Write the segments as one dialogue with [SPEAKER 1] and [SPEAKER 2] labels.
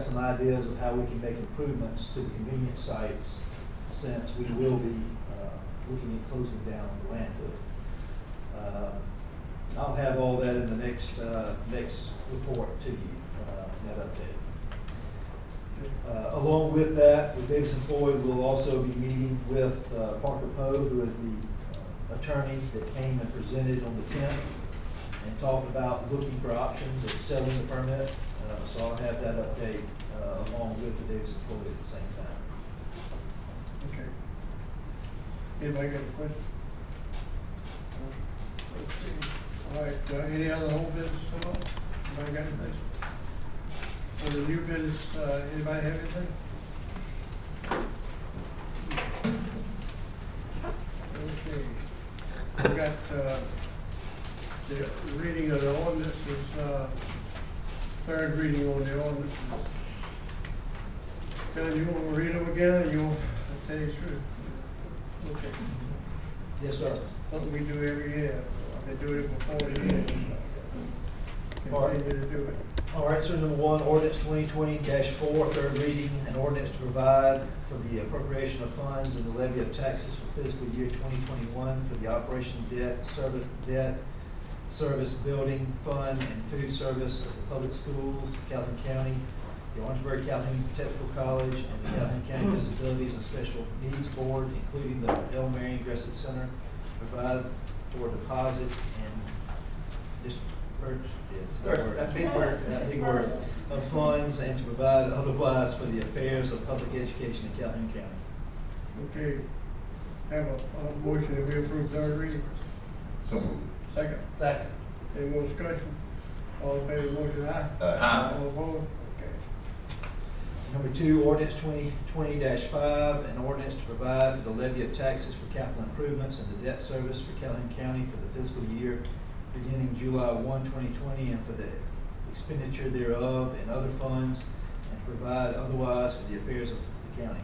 [SPEAKER 1] some ideas of how we can make improvements to the convenience sites since we will be uh, looking at closing down the landfill. Um, I'll have all that in the next, uh, next report to you, uh, that update. Uh, Along with that, with Davidson Floyd, we'll also be meeting with uh, Parker Poe, who is the uh, attorney that came and presented on the tenth and talked about looking for options of selling the permit. Uh, So I'll have that update uh, along with the Davidson Floyd at the same time.
[SPEAKER 2] Okay. Anybody got a question? All right, uh, any other old business come up? Anybody got anything? For the new business, uh, anybody have anything? Okay. We got, uh, the reading of the ordinances, uh, third reading on the ordinances. John, you want to read them again, or you want to tell you the truth? Okay,
[SPEAKER 1] Yes, sir.
[SPEAKER 2] something we do every year, they do it before the year. Continue to do it.
[SPEAKER 1] All right, so number one, ordinance twenty twenty four, third reading, an ordinance to provide for the appropriation of funds and the levy of taxes for fiscal year twenty twenty-one for the operation debt, servant debt, service building fund, and food service of the public schools, Calhoun County, the Orangeburg Calhoun Technical College, and the Calhoun County Disabilities and Special Needs Board, including the El Marion Aggressive Center, provide for deposit and disburse, it's that word, that big word, that big word, of funds and to provide otherwise for the affairs of public education in Calhoun County.
[SPEAKER 2] Okay, have a, a motion that we approve third reading,
[SPEAKER 3] So moved.
[SPEAKER 2] second,
[SPEAKER 1] Second.
[SPEAKER 2] any more discussion? All in favor of the motion, aye?
[SPEAKER 3] Aye.
[SPEAKER 2] All opposed? Okay,
[SPEAKER 1] Number two, ordinance twenty twenty five, an ordinance to provide for the levy of taxes for capital improvements and the debt service for Calhoun County for the fiscal year beginning July 1, 2020, and for the expenditure thereof and other funds, and to provide otherwise for the affairs of the county.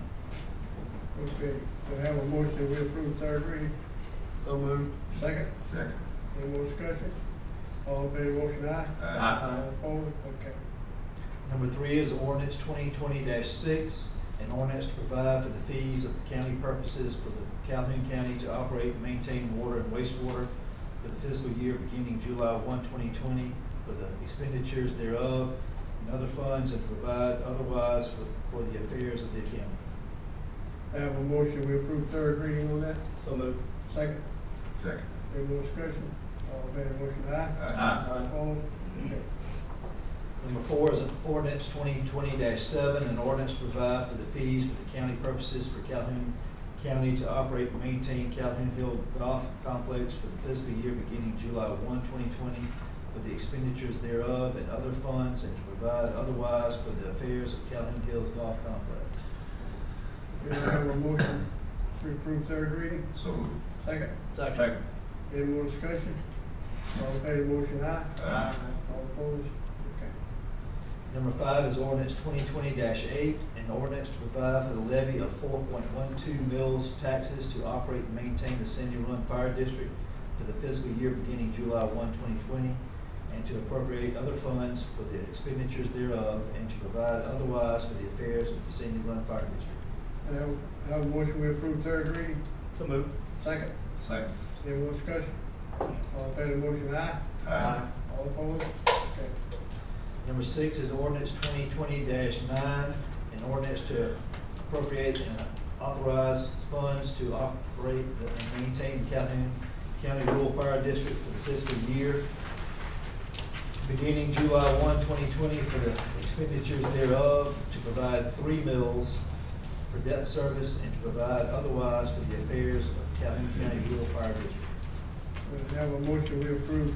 [SPEAKER 2] okay, we have a motion that we approve third reading,
[SPEAKER 1] So moved.
[SPEAKER 2] second,
[SPEAKER 3] Second.
[SPEAKER 2] any more discussion? All in favor of the motion, aye?
[SPEAKER 3] Aye.
[SPEAKER 2] All opposed? Okay,
[SPEAKER 1] Number three is ordinance twenty twenty six, an ordinance to provide for the fees of the county purposes for the Calhoun County to operate and maintain water and wastewater for the fiscal year beginning July 1, 2020, for the expenditures thereof and other funds and provide otherwise for, for the affairs of the county.
[SPEAKER 2] I have a motion, we approve third reading on that,
[SPEAKER 1] So moved.
[SPEAKER 2] second,
[SPEAKER 3] Second.
[SPEAKER 2] Any more discussion? All in favor of the motion, aye?
[SPEAKER 3] Aye.
[SPEAKER 2] Opposed? Okay.
[SPEAKER 1] Number four is an ordinance twenty twenty seven, an ordinance to provide for the fees for the county purposes for Calhoun County to operate and maintain Calhoun Hill Golf Complex for the fiscal year beginning July 1, 2020, for the expenditures thereof and other funds, and to provide otherwise for the affairs of Calhoun Hills Golf Complex.
[SPEAKER 2] We have a motion to approve third reading,
[SPEAKER 3] So moved.
[SPEAKER 2] second.
[SPEAKER 1] Second.
[SPEAKER 2] Any more discussion? All in favor of the motion, aye?
[SPEAKER 3] Aye.
[SPEAKER 2] All opposed? Okay.
[SPEAKER 1] Number five is ordinance twenty twenty eight, an ordinance to provide for the levy of four point one two mills taxes to operate and maintain the Sandy Run Fire District for the fiscal year beginning July 1, 2020, and to appropriate other funds for the expenditures thereof, and to provide otherwise for the affairs of the Sandy Run Fire District.
[SPEAKER 2] I have, I have a motion, we approve third reading,
[SPEAKER 1] So moved.
[SPEAKER 2] second.
[SPEAKER 3] Second.
[SPEAKER 2] Any more discussion? All in favor of the motion, aye?
[SPEAKER 3] Aye.
[SPEAKER 2] All opposed? Okay.
[SPEAKER 1] Number six is ordinance twenty twenty nine, an ordinance to appropriate and authorize funds to operate and maintain Calhoun County Rural Fire District for the fiscal year beginning July 1, 2020, for the expenditures thereof, to provide three mills for debt service and to provide otherwise for the affairs of Calhoun County Rural Fire District.
[SPEAKER 2] We have a motion, we approve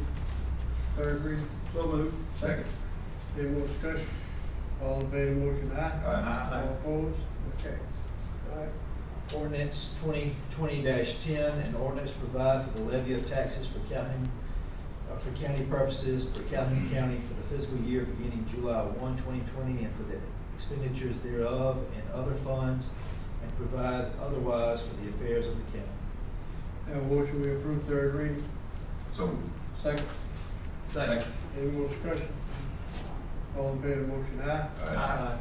[SPEAKER 2] third reading,
[SPEAKER 1] So moved.
[SPEAKER 3] Second.
[SPEAKER 2] any more discussion? All in favor of the motion, aye?
[SPEAKER 3] Aye.
[SPEAKER 2] All opposed? Okay. All right.
[SPEAKER 1] Ordinance twenty twenty ten, an ordinance to provide for the levy of taxes for Calhoun, uh, for county purposes, for Calhoun County for the fiscal year beginning July 1, 2020, and for the expenditures thereof and other funds, and provide otherwise for the affairs of the county.
[SPEAKER 2] Have a motion, we approve third reading.
[SPEAKER 3] So moved.
[SPEAKER 2] Second,
[SPEAKER 3] Second.
[SPEAKER 2] any more discussion? All in favor of the motion, aye?
[SPEAKER 3] Aye.